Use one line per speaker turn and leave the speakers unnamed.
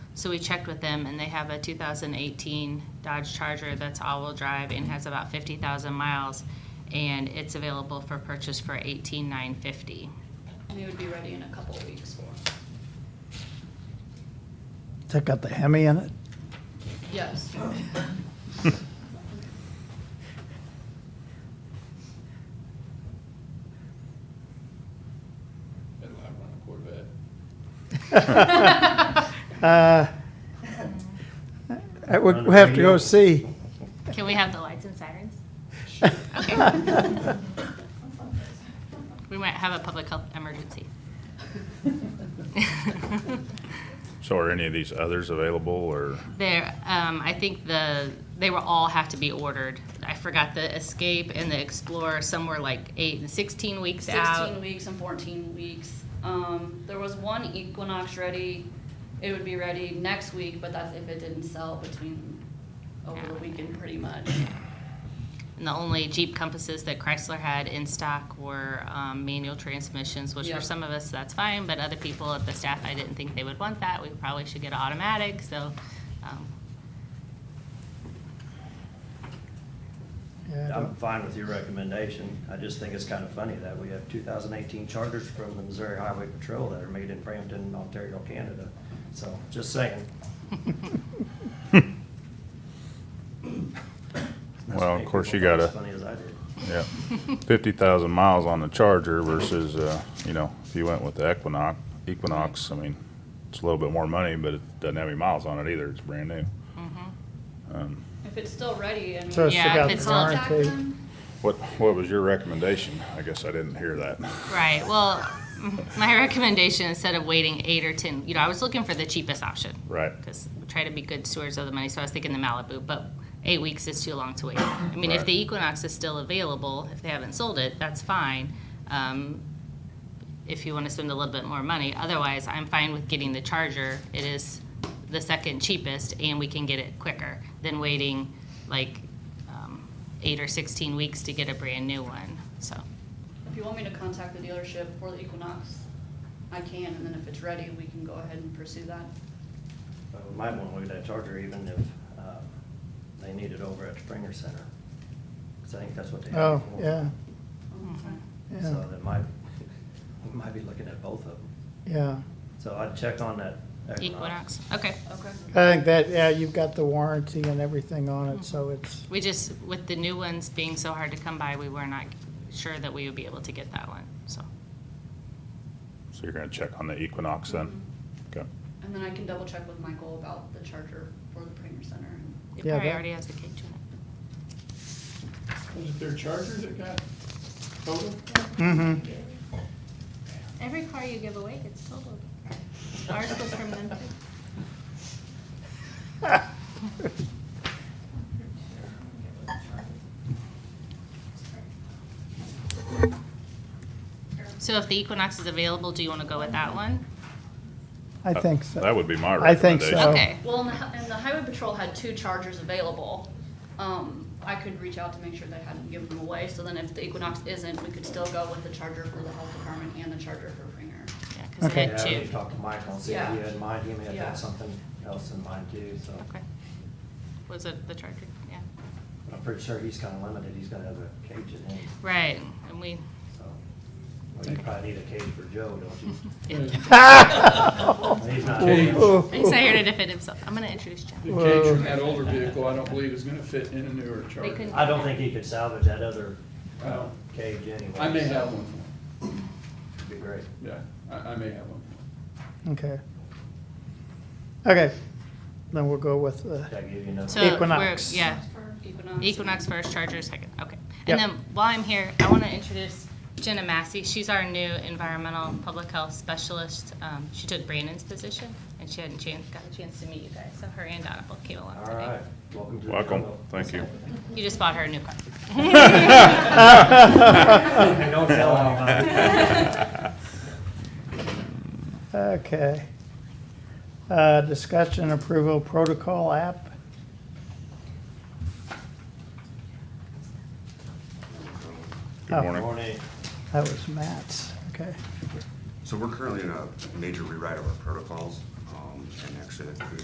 So we checked with them and they have a 2018 Dodge Charger that's all-wheel drive and has about 50,000 miles. And it's available for purchase for 18,950.
And it would be ready in a couple of weeks for,
Took out the Hemi in it.
yes.
Better not run a Corvette.
Uh, I would, we have to go see.
Can we have the lights and sirens? We might have a public health emergency.
So are any of these others available, or?
There, um, I think the, they were all have to be ordered. I forgot the Escape and the Explorer, some were like eight and 16 weeks out.
Sixteen weeks and fourteen weeks. Um, there was one Equinox ready, it would be ready next week, but that's if it didn't sell between, over the
Yeah.
weekend pretty much.
And the only Jeep Compasses that Chrysler had in stock were um, manual transmissions, which
Yeah.
for some of us, that's fine, but other people at the staff, I didn't think they would want that. We probably should get an automatic, so, um,
Yeah, I
I'm
don't-
fine with your recommendation. I just think it's kind of funny that we have 2018 chargers from the Missouri Highway Patrol that are made in Brampton, Ontario, Canada. So, just saying. That's
Well,
what
of course, you
people thought
gotta,
As funny as I did.
yeah, fifty thousand miles on the Charger versus, uh, you know, if you went with the Equinox, Equinox, I mean, it's a little bit more money, but it doesn't have any miles on it either, it's brand new. Um,
If it's still ready, I mean.
So it's
Yeah,
took out
if
the
it's not
warranty.
What, what was your recommendation? I guess I didn't hear that.
Right. Well, m- my recommendation instead of waiting eight or ten, you know, I was looking for the cheapest option.
Right.
Because we try to be good stewards of the money, so I was thinking the Malibu, but eight weeks is too long to wait. I mean, if
Right.
the Equinox is still available, if they haven't sold it, that's fine. Um, if you want to spend a little bit more money, otherwise, I'm fine with getting the Charger. It is the second cheapest, and we can get it quicker than waiting like um, eight or sixteen weeks to get a brand new one. So.
If you want me to contact the dealership for the Equinox, I can, and then if it's ready, we can go ahead and pursue that.
Uh, We might want to look at that charger even if uh, they need it over at Springer Center. Because I think that's what they have.
Oh,
it for.
yeah,
So
yeah,
that might, we might be looking at both of them.
yeah.
So I'd check on that
Equinox, okay.
Okay.
I think that, yeah, you've got the warranty and everything on it, so it's,
We just, with the new ones being so hard to come by, we were not sure that we would be able to get that one, so.
So you're gonna check on the Equinox then? Okay.
And then I can double check with Michael about the charger for the Premier Center.
It
Yeah,
probably
that-
already has the cage in it.
Was it their Charger that got totaled?
hmm
Every car you give away gets totaled. Ours was from them too. So if the Equinox is available, do you want to go with that one?
I
That-
think so.
That would be my
I think
recommendation.
so.
Okay,
Well, and the, hi- and the highway patrol had two chargers available. Um, I could reach out to make sure they hadn't given them away, so then if the Equinox isn't, we could still go with the charger for the health department and the charger for Premier.
yeah, because they
Okay.
had
Yeah, we
two.
need to talk to Michael and see if he
Yeah.
had in mind, he may have
Yeah.
had something else in mind too, so.
Okay. Was it the Charger? Yeah.
I'm pretty sure he's kind of limited, he's gonna have a cage in him,
Right, and we,
so. Well, you probably need a cage for Joe, don't you? He's not,
Cage.
Ooh,
he's not here to defend himself. I'm gonna introduce Jim.
The cage from that older vehicle, I don't believe is gonna fit in a newer Charger.
couldn't-
I don't think he could salvage that other
Uh,
cage anyway.
I may
so
have one,
it'd Be great.
yeah, I, I may have one.
Okay. Okay, then we'll go with, uh,
Did I give you another?
So we're-
Equinox.
Yeah,
Equinox.
Equinox first, Charger second, okay. And
Yep.
then while I'm here, I want to introduce Jenna Massey. She's our new environmental public health specialist. Um, She took Brandon's position, and she hadn't chan- got a chance to meet you guys, so her and Donna both came along
All
today.
right, welcome to the
Welcome,
jungle.
thank you.
You just bought her a new car.
Hey, Don't tell anybody.
okay. Uh, discussion approval protocol app.
Good
Oh.
morning.
Morning.
That was Matt's, okay.
So we're currently in a major rewrite of our protocols, um, and actually, the